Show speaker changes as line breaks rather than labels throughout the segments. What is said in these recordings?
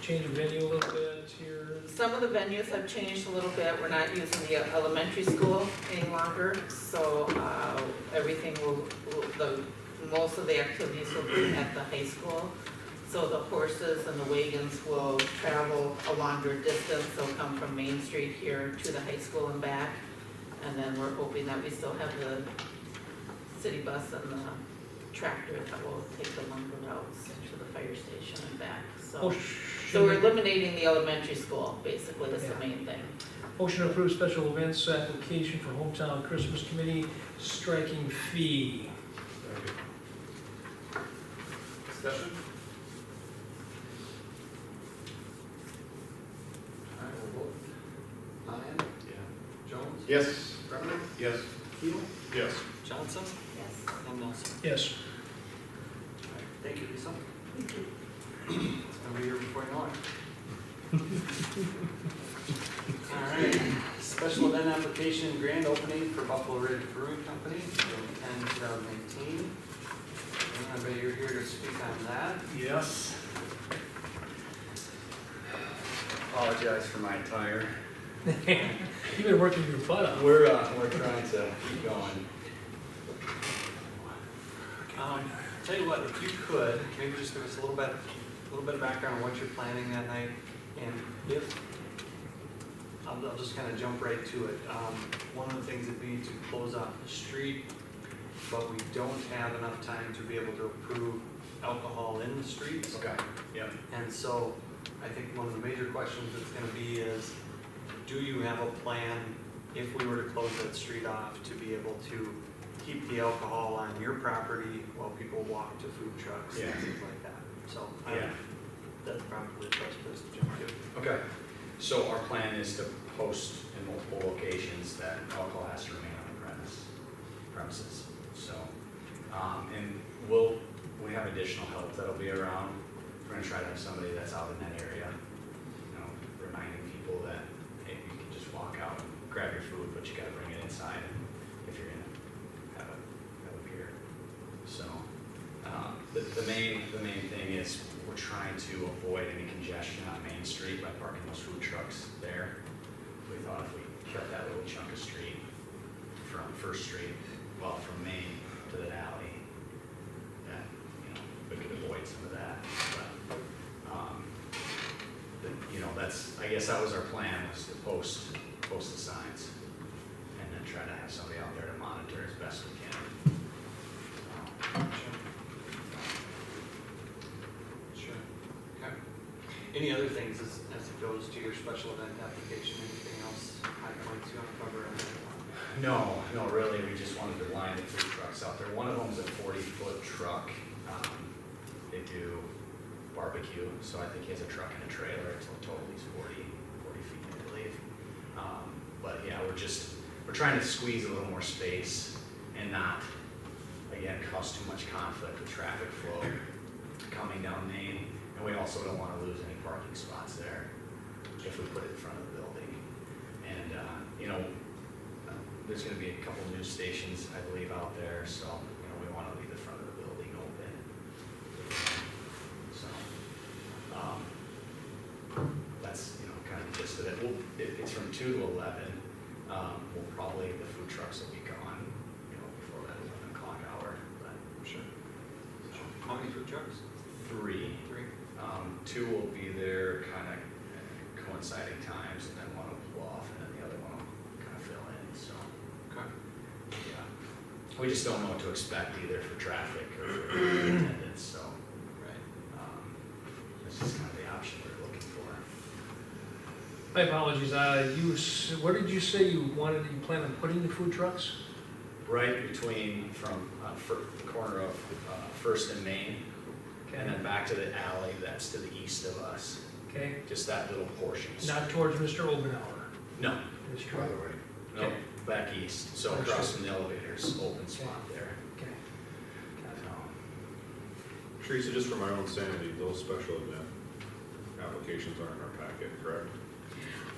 Change of venue a little bit here.
Some of the venues have changed a little bit, we're not using the elementary school any longer, so, uh, everything will, will- the, most of the activities will be at the high school. So the horses and the wagons will travel a longer distance, they'll come from Main Street here to the high school and back. And then we're hoping that we still have the city bus and the tractor that will take the longer routes to the fire station and back, so. Oh, So we're
Motion
eliminating the elementary school, basically, is the main thing.
motion to approve special events application for hometown Christmas committee, striking fee.
Discussion?
I will vote. Lyon,
Yeah.
Jones,
Yes.
Brenneman,
Yes.
Keel,
Yes.
Johnson,
Yes.
and Nelson.
Yes.
Thank you, Lisa. It's gonna be here before you know it. All right, special event application grand opening for Buffalo Ridge Brewing Company, June 10, 2018. Anybody you're here to speak on that?
Yes.
Apologize for my tire.
You've been working your butt off.
We're, uh, we're trying to keep going.
Um, Tell you what, if you could, maybe just give us a little bit, a little bit of background on what you're planning that night, and if, I'll, I'll just kind of jump right to it. Um, One of the things that we need to close off the street, but we don't have enough time to be able to approve alcohol in the streets.
Okay. Yep.
And so, I think one of the major questions that's gonna be is, do you have a plan, if we were to close that street off, to be able to keep the alcohol on your property while people walk to food trucks and
Yeah.
things like that? So, I,
Yeah.
that's probably the best place to jump to.
Okay. So our plan is to post in multiple locations that alcohol has to remain on the premise, premises. So, um, and we'll, we have additional help that'll be around. We're gonna try to have somebody that's out in that area, you know, reminding people that, hey, you can just walk out and grab your food, but you gotta bring it inside and if you're gonna have it, have it here. So, um, The, the main, the main thing is we're trying to avoid any congestion on Main Street by parking those food trucks there. We thought if we kept that little chunk of street from First Street, well, from Main to the alley, that, you know, we could avoid some of that, but, um, the- you know, that's, I guess that was our plan, was to post, post the signs and then try to have somebody out there to monitor as best we can. Um,
Sure. Okay. Any other things as, as it goes to your special event application, anything else high points you want to cover?
No, no, really, we just wanted to line the food trucks up there. One of them's a forty-foot truck. Um, They do barbecue, so I think he has a truck and a trailer, it's a total is 40 40 feet, I believe. Um, But yeah, we're just, we're trying to squeeze a little more space and not, again, cause too much conflict with traffic flow coming down Main. And we also don't wanna lose any parking spots there if we put it in front of the building. And, uh, you know, uh, there's gonna be a couple news stations, I believe, out there, so, you know, we wanna leave the front of the building open. So, um, that's, you know, kind of the gist of it. We'll, it, it's from two to eleven, um, we'll probably, the food trucks will be gone, you know, before that eleven o'clock hour, but
Sure. How many food trucks?
three.
Three?
Um, two will be there kind of coinciding times, and then one will pull off, and then the other one will kind of fill in, so.
Okay.
Yeah, we just don't know what to expect either for traffic or for attendance, so,
Right.
um, this is kind of the option we're looking for.
My apologies, uh, you, s- where did you say you wanted, you plan on putting the food trucks?
Right between, from, uh, fir, the corner of, uh, First and Main, and then back to the alley that's to the east of us,
Okay,
just that little portion.
not towards Mr. Obenauer.
No,
Mr. Obenauer,
no, back east, so across from the elevators, open spot there.
okay. Got it.
Um,
Teresa, just for my own sanity, those special event applications are in our packet, correct?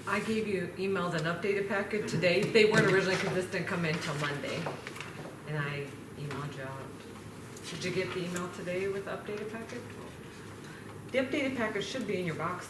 I gave you, emailed an updated packet today. They weren't originally, because this didn't come in till Monday. And I emailed you out. Did you get the email today with the updated packet? The updated package should be in your box